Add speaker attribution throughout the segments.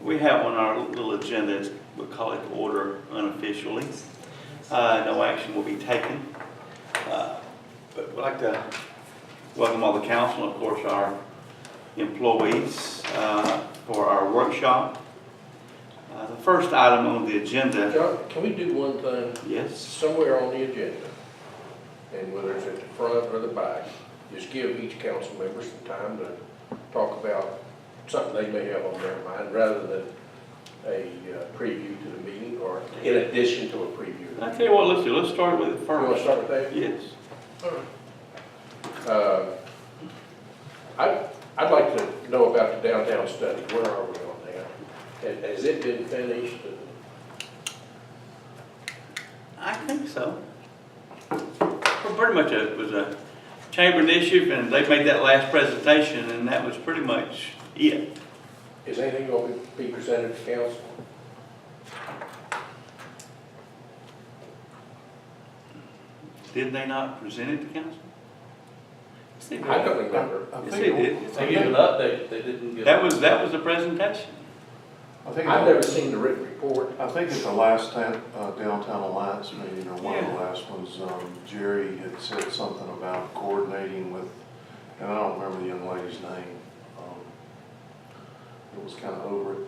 Speaker 1: We have on our little agenda, it's- we call it order unofficially. Uh, No action will be taken. Uh, But we'd like to welcome all the council, and of course, our employees uh, for our workshop. Uh, The first item on the agenda,
Speaker 2: John, can we do one thing?
Speaker 1: yes,
Speaker 2: Somewhere on the agenda, and whether it's at the front or the back, just give each council member some time to talk about something they may have on their mind, rather than a uh, preview to the meeting, or in addition to a preview.
Speaker 1: I tell you what, let's do, let's start with it
Speaker 2: You want to
Speaker 1: first.
Speaker 2: start with that?
Speaker 1: Yes.
Speaker 2: Uh, I, I'd like to know about the downtown study, where are we on that? And Has it been finished?
Speaker 1: I think so. Well, Pretty much it was a chamber initiative, and they made that last presentation, and that was pretty much it.
Speaker 2: Is anything going to be presented to council?
Speaker 1: Did they not present it to council? Yes, they did.
Speaker 2: I don't remember.
Speaker 3: I
Speaker 1: Yes,
Speaker 3: think
Speaker 1: they did.
Speaker 3: it-
Speaker 4: They give an update, they didn't give.
Speaker 1: That was, that was the presentation.
Speaker 3: I think,
Speaker 2: I've never
Speaker 3: it-
Speaker 2: seen the written report.
Speaker 3: I think at the last ta- uh, downtown alliance meeting, or one of the
Speaker 1: Yeah.
Speaker 3: last ones, um, Jerry had said something about coordinating with, and I don't remember the young lady's name. um, It was kind of over it.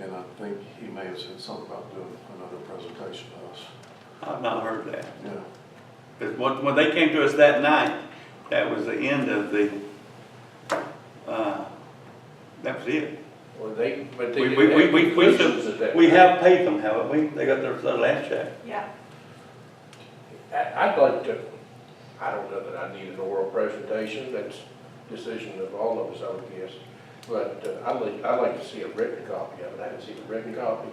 Speaker 3: And I think he may have said something about doing another presentation to us,
Speaker 1: I've not heard that.
Speaker 3: yeah.
Speaker 1: Because when, when they came to us that night, that was the end of the, uh, that was it.
Speaker 2: Or they, but they
Speaker 1: We, we, we,
Speaker 2: didn't
Speaker 1: we,
Speaker 2: have
Speaker 1: we
Speaker 2: conclusions at that.
Speaker 1: we have paid them, haven't we? They got their, their last check.
Speaker 5: Yeah,
Speaker 2: I- I'd like to, I don't know that I need an oral presentation, that's decision of all of us, I would guess. But uh, I'd like, I'd like to see a written copy of it, I haven't seen a written copy.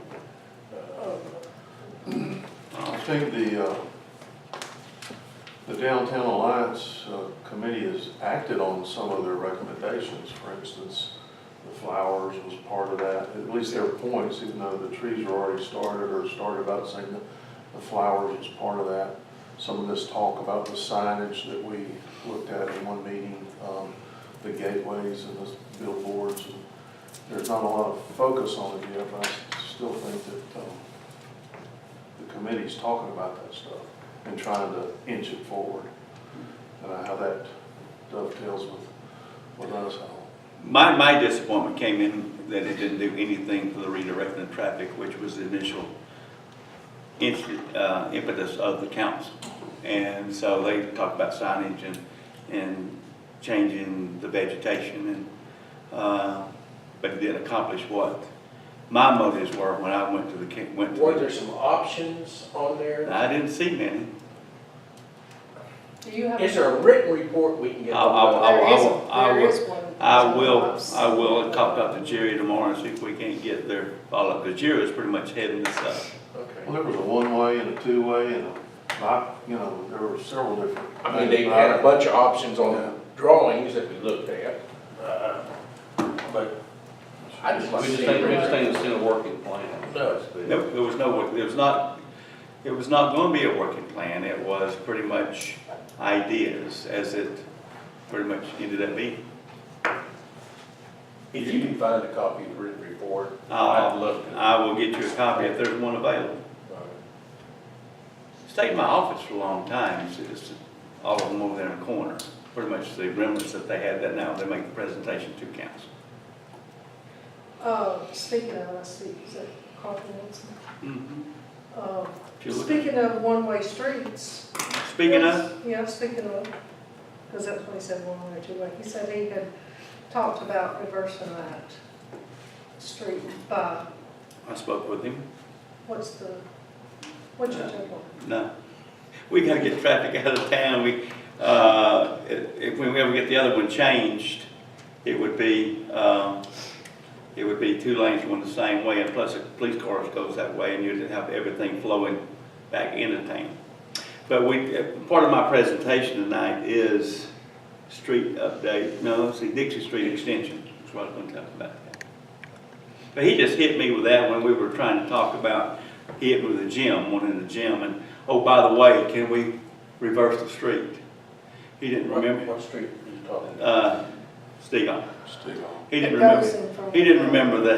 Speaker 2: Uh,
Speaker 3: I think the, uh, the Downtown Alliance uh, Committee has acted on some of their recommendations. For instance, the flowers was part of that, at least their points, even though the trees were already started or started about saying that the flowers was part of that. Some of this talk about the signage that we looked at in one meeting, um, the gateways and the billboards. and There's not a lot of focus on it yet, but I s- still think that, um, the committee's talking about that stuff and trying to inch it forward. And how that dovetails with, with us, how
Speaker 1: My, my disappointment came in that it didn't do anything for the redirecting of traffic, which was the initial int- uh, impetus of the council. And so they talked about signage and, and changing the vegetation and, uh, but it didn't accomplish what my motives were when I went to the, ca- went to
Speaker 2: Weren't there
Speaker 1: the.
Speaker 2: some options on there?
Speaker 1: I didn't see many.
Speaker 5: do you have?
Speaker 2: Is there a written report we can get?
Speaker 1: I'll- I'll- I'll-
Speaker 5: There is,
Speaker 1: I will-
Speaker 5: there is one.
Speaker 1: I will, I will talk up to Jerry tomorrow and see if we can't get their follow-up. Because Jerry was pretty much heading this up.
Speaker 2: Okay.
Speaker 3: well, there was a one-way and a two-way and a, bi- you know, there were several different.
Speaker 2: I mean, they had a bunch of options on drawings that we looked at, uh, but I just
Speaker 4: We
Speaker 2: like to
Speaker 4: just
Speaker 2: see.
Speaker 4: think, we just
Speaker 2: it.
Speaker 4: think it's in a working plan.
Speaker 2: No.
Speaker 1: No, there was no, work- there was not, it was not going to be a working plan, it was pretty much ideas, as it pretty much ended up being.
Speaker 2: If you can find a copy of the written report, I'd
Speaker 1: Uh,
Speaker 2: love to.
Speaker 1: I will get you a copy if there's one available. Stayed in my office for a long time, it's just all of them over there in the corner, pretty much the remnants that they had that now, they make the presentation to council.
Speaker 5: Uh, speaking of, let's see, is that Carter Wilson? Um,
Speaker 1: If you look-
Speaker 5: Speaking of one-way streets.
Speaker 1: Speaking of,
Speaker 5: Yeah, speaking of, because that's what he said, one-way or two-way. He said he had talked about reversing that street by,
Speaker 1: I spoke with him,
Speaker 5: what's the, what's
Speaker 1: Uh,
Speaker 5: your title?
Speaker 1: No. We gotta get traffic out of town, we, uh, if, if we ever get the other one changed, it would be, um, it would be two lanes going the same way, and plus a police car goes that way, and you'd have everything flowing back into town. But we, uh, part of my presentation tonight is street update, no, see Dixie Street Extension, that's what I was gonna talk about. But he just hit me with that when we were trying to talk about, he hit me with a gym, one in the gym, and, oh, by the way, can we reverse the street? He didn't remember,
Speaker 2: What street are you talking about?
Speaker 1: uh, Steve,
Speaker 3: Stick on.
Speaker 1: he didn't
Speaker 5: It goes
Speaker 1: remember,
Speaker 5: in from-
Speaker 1: he didn't remember that